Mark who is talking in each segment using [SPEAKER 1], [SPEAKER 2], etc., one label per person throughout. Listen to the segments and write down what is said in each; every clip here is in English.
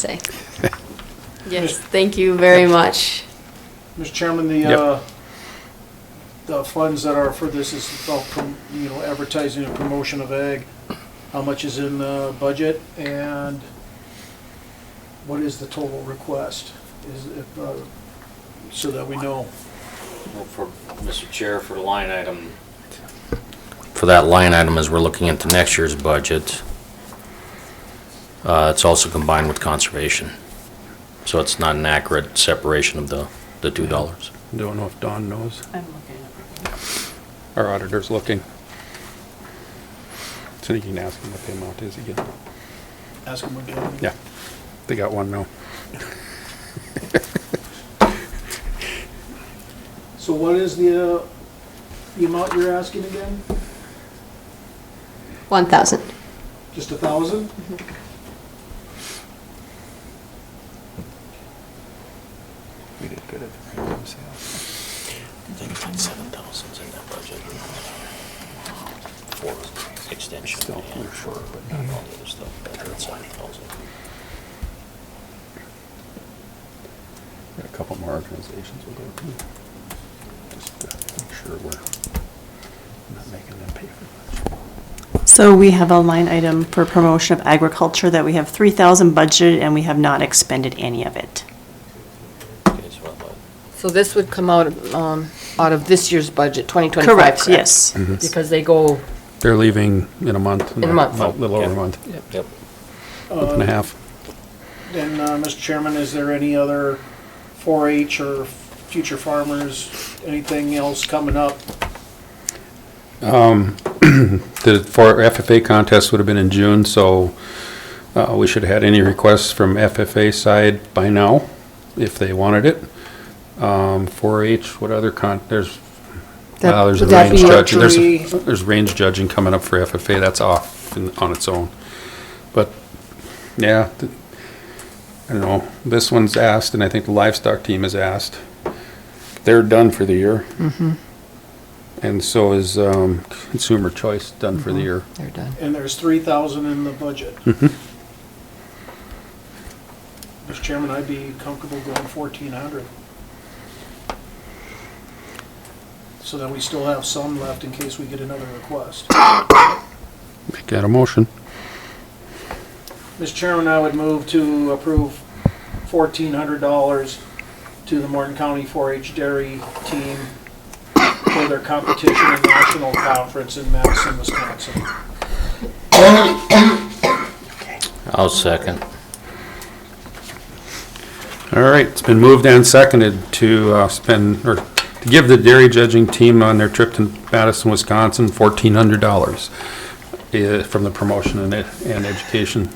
[SPEAKER 1] say. Yes, thank you very much.
[SPEAKER 2] Mr. Chairman, the,
[SPEAKER 3] Yep.
[SPEAKER 2] uh, the funds that are for this is, all prom- you know, advertising and promotion of ag. How much is in the budget and what is the total request? Is it, uh, so that we know.
[SPEAKER 4] Well, For, Mr. Chair, for the line item,
[SPEAKER 5] for that line item as we're looking into next year's budget. Uh, It's also combined with conservation. So it's not an accurate separation of the, the two dollars.
[SPEAKER 3] Don't know if Don knows.
[SPEAKER 6] I'm looking at
[SPEAKER 3] Our auditor's looking. So you can ask him what the amount is again.
[SPEAKER 2] Ask them again.
[SPEAKER 3] Yeah, they got one now.
[SPEAKER 2] So what is the, uh, the amount you're asking again?
[SPEAKER 1] 1,000.
[SPEAKER 2] Just a thousand?
[SPEAKER 7] We did good at the premium sale.
[SPEAKER 5] I think it's like seven thousands in that budget. For extension
[SPEAKER 3] Still,
[SPEAKER 5] and
[SPEAKER 3] we're
[SPEAKER 5] for all the other stuff, but it's seven thousand.
[SPEAKER 3] Got a couple more organizations we'll go to. Just to make sure we're not making them pay for much.
[SPEAKER 6] it. So we have a line item for promotion of agriculture that we have 3,000 budgeted and we have not expended any of it.
[SPEAKER 5] Okay, so about
[SPEAKER 8] So this would come out, of, um, out of this year's budget, 2025, correct?
[SPEAKER 6] Correct, yes.
[SPEAKER 8] Because they go,
[SPEAKER 3] They're leaving in a month.
[SPEAKER 8] In a month.
[SPEAKER 3] About Little over a month,
[SPEAKER 5] Yep.
[SPEAKER 3] month and a half.
[SPEAKER 2] And, uh, Mr. Chairman, is there any other 4-H or future farmers, anything else coming up?
[SPEAKER 3] The, for FFA contest would have been in June, so uh, we should have had any requests from FFA side by now, if they wanted it. Um, 4-H, what other con, there's,
[SPEAKER 8] That-
[SPEAKER 3] wow, there's a
[SPEAKER 8] would that
[SPEAKER 3] range
[SPEAKER 8] be-
[SPEAKER 3] judging, there's, a-
[SPEAKER 2] Archery.
[SPEAKER 3] there's range judging coming up for FFA, that's off in- on its own. But, yeah, th- I don't know, this one's asked, and I think the livestock team is asked. They're done for the year.
[SPEAKER 8] Mm-hmm.
[SPEAKER 3] And so is um, consumer choice done for
[SPEAKER 8] Mm-hmm.
[SPEAKER 3] the year.
[SPEAKER 8] they're done.
[SPEAKER 2] And there's three thousand in the budget. Mr. Chairman, I'd be comfortable going fourteen hundred. So that we still have some left in case we get another request.
[SPEAKER 3] Make that a motion.
[SPEAKER 2] Mr. Chairman, I would move to approve fourteen hundred dollars to the Morton County 4-H Dairy Team for their competition and national conference in Madison, Wisconsin.
[SPEAKER 5] I'll second.
[SPEAKER 3] All right, it's been moved and seconded to uh, spend, or to give the dairy judging team on their trip to Madison, Wisconsin, fourteen hundred dollars eh, from the promotion and, ed- and education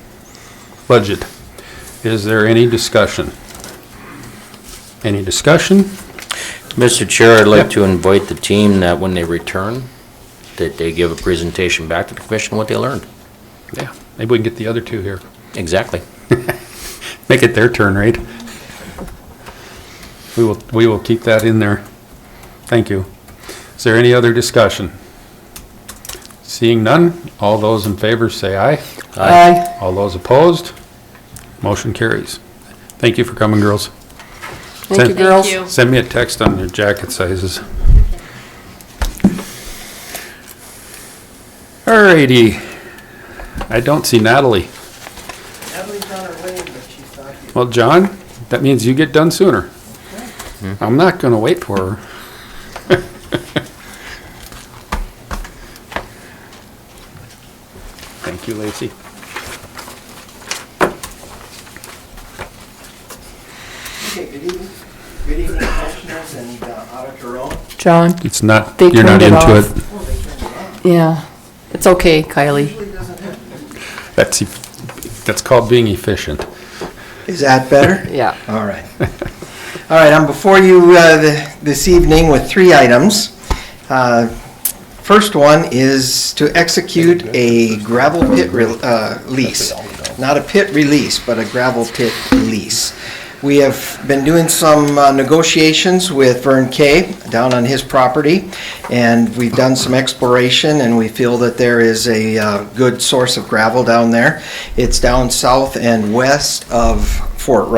[SPEAKER 3] budget. Is there any discussion? Any discussion?
[SPEAKER 5] Mr. Chair, I'd like to invite the team that when they return, that they give a presentation back to the commission what they learned.
[SPEAKER 3] Yeah, maybe we can get the other two here.
[SPEAKER 5] Exactly.
[SPEAKER 3] Make it their turn, right? We will, we will keep that in there. Thank you. Is there any other discussion? Seeing none, all those in favor say aye.
[SPEAKER 8] Aye.
[SPEAKER 3] All those opposed, motion carries. Thank you for coming, girls.
[SPEAKER 8] Thank you,
[SPEAKER 3] Send-
[SPEAKER 8] girls.
[SPEAKER 1] you.
[SPEAKER 3] Send me a text on your jacket sizes. Alrighty. I don't see Natalie.
[SPEAKER 2] Natalie's on her way, but she's not here.
[SPEAKER 3] Well, John, that means you get done sooner. I'm not gonna wait for her. Thank you, Lacey.
[SPEAKER 7] Okay, good evening. Good evening, commissioners and uh, Auditor Rowe.
[SPEAKER 8] John?
[SPEAKER 3] It's not,
[SPEAKER 8] They
[SPEAKER 3] you're not
[SPEAKER 8] turned it
[SPEAKER 3] into
[SPEAKER 8] off.
[SPEAKER 3] it.
[SPEAKER 8] Yeah. It's okay, Kylie.
[SPEAKER 7] Usually doesn't happen.
[SPEAKER 3] That's, eff- that's called being efficient.
[SPEAKER 7] Is that better?
[SPEAKER 8] Yeah.
[SPEAKER 7] All right. All right, I'm before you uh, th- this evening with three items. Uh, First one is to execute a gravel pit re- uh, lease. Not a pit release, but a gravel pit lease. We have been doing some uh, negotiations with Vern Kay down on his property, and we've done some exploration, and we feel that there is a uh, good source of gravel down there. It's down south and west of Fort Rush.